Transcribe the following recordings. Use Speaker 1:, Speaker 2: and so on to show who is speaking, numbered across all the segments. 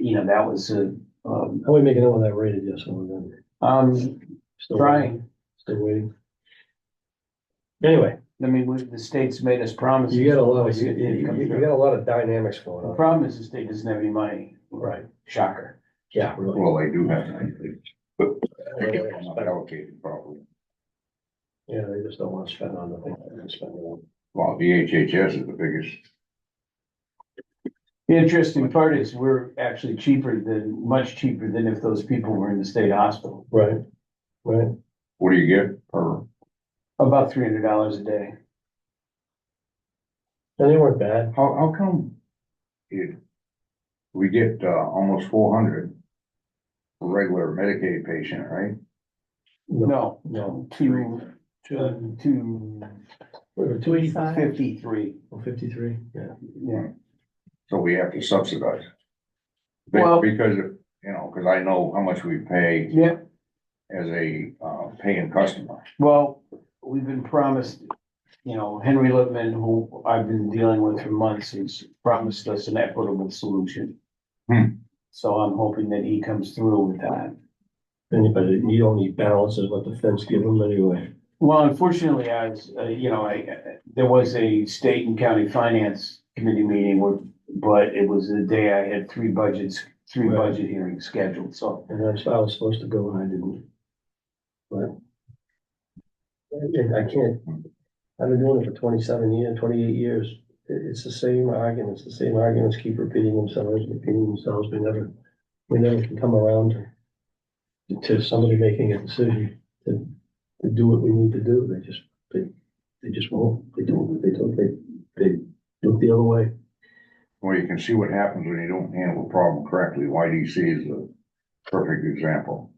Speaker 1: you know, that was a, um,
Speaker 2: How are we making out on that rated yes or no?
Speaker 1: um,
Speaker 2: Still waiting?
Speaker 1: trying.
Speaker 2: Still waiting. Anyway,
Speaker 1: I mean, we- the state's made us promises.
Speaker 2: you got a lot,
Speaker 1: It's
Speaker 2: of you,
Speaker 1: gonna
Speaker 2: you,
Speaker 1: come
Speaker 2: you
Speaker 1: through.
Speaker 2: got a lot of dynamics going
Speaker 1: The
Speaker 2: on.
Speaker 1: problem is the state doesn't have any money.
Speaker 2: Right.
Speaker 1: Shocker.
Speaker 2: Yeah, really.
Speaker 3: Well, they do have, to, but it's not
Speaker 2: Yeah,
Speaker 3: allocated properly.
Speaker 2: they just don't want to spend on the thing they're gonna spend it on.
Speaker 3: Well, VHHS is the biggest,
Speaker 1: The interesting part is we're actually cheaper than, much cheaper than if those people were in the state hospital.
Speaker 2: Right, right.
Speaker 3: what do you get per,
Speaker 1: About three hundred dollars a day.
Speaker 2: And they weren't bad.
Speaker 3: how, how come? It, we get, uh, almost four hundred. Regular Medicaid patient, right?
Speaker 1: No,
Speaker 2: No.
Speaker 1: two, uh,
Speaker 2: Two,
Speaker 1: two
Speaker 2: two eighty-five?
Speaker 1: fifty-three.
Speaker 2: Or fifty-three, yeah.
Speaker 1: Yeah,
Speaker 3: So we have to subsidize. Be-
Speaker 1: Well-
Speaker 3: Because, of you know, cause I know how much we pay
Speaker 1: yeah,
Speaker 3: as a, uh, paying customer.
Speaker 1: well, we've been promised, you know, Henry Lippman, who I've been dealing with for months, has promised us an equitable solution.
Speaker 3: Hmm.
Speaker 1: So I'm hoping that he comes through with that.
Speaker 2: Anybody, you only balance is what the fence give them anyway.
Speaker 1: Well, unfortunately, I was, uh, you know, I, there was a state and county finance committee meeting where, but it was the day I had three budgets, three
Speaker 2: Right.
Speaker 1: budget hearings scheduled, so.
Speaker 2: And that's how I was supposed to go and I didn't. But. I I can't, I've been doing it for twenty-seven years, twenty-eight years. It, it's the same arguments, the same arguments keep repeating themselves, repeating themselves. We never, we never can come around to- to somebody making a decision to, to do what we need to do. They just, they, they just won't. They don't, they don't, they, they look the other way.
Speaker 3: Well, you can see what happens when you don't handle a problem correctly. YDC is a perfect example.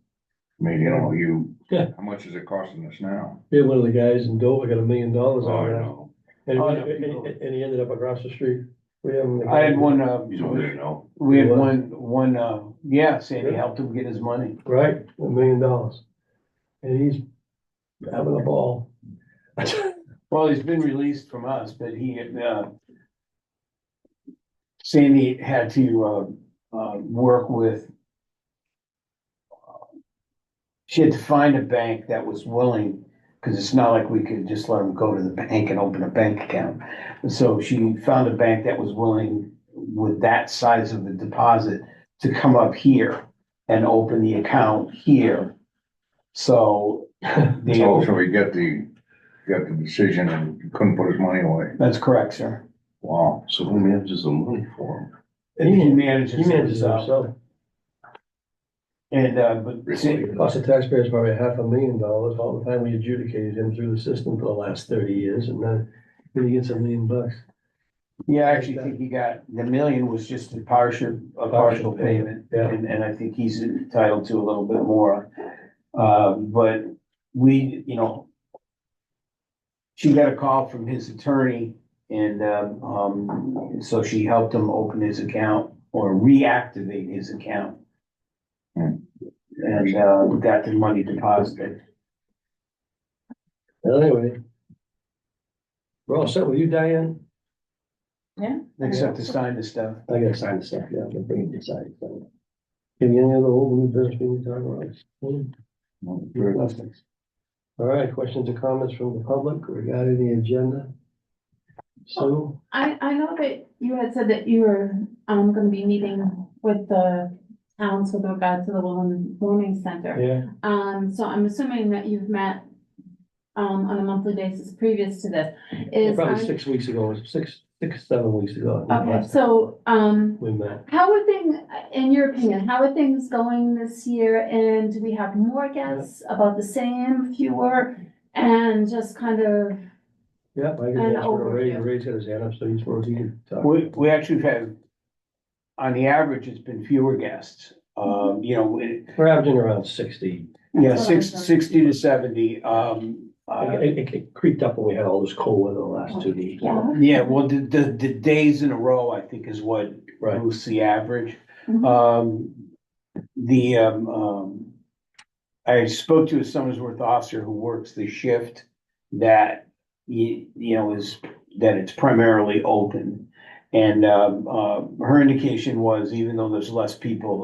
Speaker 3: I mean, you know, you,
Speaker 2: Yeah.
Speaker 3: how much is it costing us now?
Speaker 2: Yeah, one of the guys in Dover got a million dollars
Speaker 3: Oh,
Speaker 2: out
Speaker 3: I
Speaker 2: of that.
Speaker 3: know.
Speaker 2: And,
Speaker 1: Oh,
Speaker 2: we-
Speaker 1: no, people-
Speaker 2: and, and he ended up across the street. We haven't.
Speaker 1: I had one, uh,
Speaker 3: You don't really know.
Speaker 1: we had
Speaker 2: What?
Speaker 1: one, one, uh, yeah, Sandy
Speaker 2: Yeah.
Speaker 1: helped him get his money.
Speaker 2: Right, a million dollars. And he's having a ball.
Speaker 1: Well, he's been released from us, but he, uh, Sandy had to, uh, uh, work with. uh, She had to find a bank that was willing, because it's not like we could just let him go to the bank and open a bank account. So she found a bank that was willing with that size of the deposit to come up here and open the account here. So. the-
Speaker 3: So, so we get the, got the decision and couldn't put his money away.
Speaker 1: That's correct, sir.
Speaker 3: Wow.
Speaker 4: So who manages the money for him?
Speaker 1: And he manages
Speaker 2: He manages it
Speaker 1: himself.
Speaker 2: himself.
Speaker 1: And, uh, but see,
Speaker 2: It Cost the taxpayers probably half a million dollars all the time we adjudicated him through the system for the last thirty years and then then he gets a million bucks.
Speaker 1: yeah, I actually think he got, the million was just a partial, a partial payment.
Speaker 2: Yeah.
Speaker 1: And, and I think he's entitled to a little bit more. Uh, but we, you know, she got a call from his attorney and, um, um, so she helped him open his account or reactivate his account.
Speaker 3: Hmm.
Speaker 1: And, uh, got the money deposited.
Speaker 2: Well, Anyway. We're all set with you, Diane?
Speaker 1: Except to sign the stuff.
Speaker 2: I gotta sign the stuff, yeah, I'm gonna bring it inside. so. Give you any other old new business we need to talk about? Hmm.
Speaker 3: Well,
Speaker 2: All right, questions or comments from the public regarding the agenda? So,
Speaker 5: I, I know that you had said that you were, um, gonna be meeting with the towns with regard to the Women Warming Center.
Speaker 2: yeah,
Speaker 5: Um, so I'm assuming that you've met, um, on a monthly basis previous to this. Is,
Speaker 2: probably
Speaker 5: um,
Speaker 2: six weeks ago, six, six, seven weeks ago. I think,
Speaker 5: okay,
Speaker 2: last
Speaker 5: so, um,
Speaker 2: time We met.
Speaker 5: how are things, in your opinion, how are things going this year? And do we have more guests, about the same, fewer? And just kind of,
Speaker 2: Yep, I
Speaker 5: An
Speaker 2: can answer, Ray,
Speaker 5: overview.
Speaker 2: Ray's got his hand up, so he's supposed to talk.
Speaker 1: We, we actually have, on the average, it's been fewer guests. Um, you know, it-
Speaker 2: We're averaging around sixty.
Speaker 1: yeah,
Speaker 5: That's what I
Speaker 1: six,
Speaker 5: thought.
Speaker 1: sixty to seventy, um, uh,
Speaker 2: It, it- it creeped up when we had all this cold weather the last two days.
Speaker 5: yeah?
Speaker 1: yeah, well, the, the, the days in a row, I think, is what
Speaker 2: Right.
Speaker 1: moves the average.
Speaker 5: Mhm.
Speaker 1: Um, the, um, um, I spoke to a Summersworth officer who works the shift that, you, you know, is, that it's primarily open. And, um, uh, her indication was even though there's less people,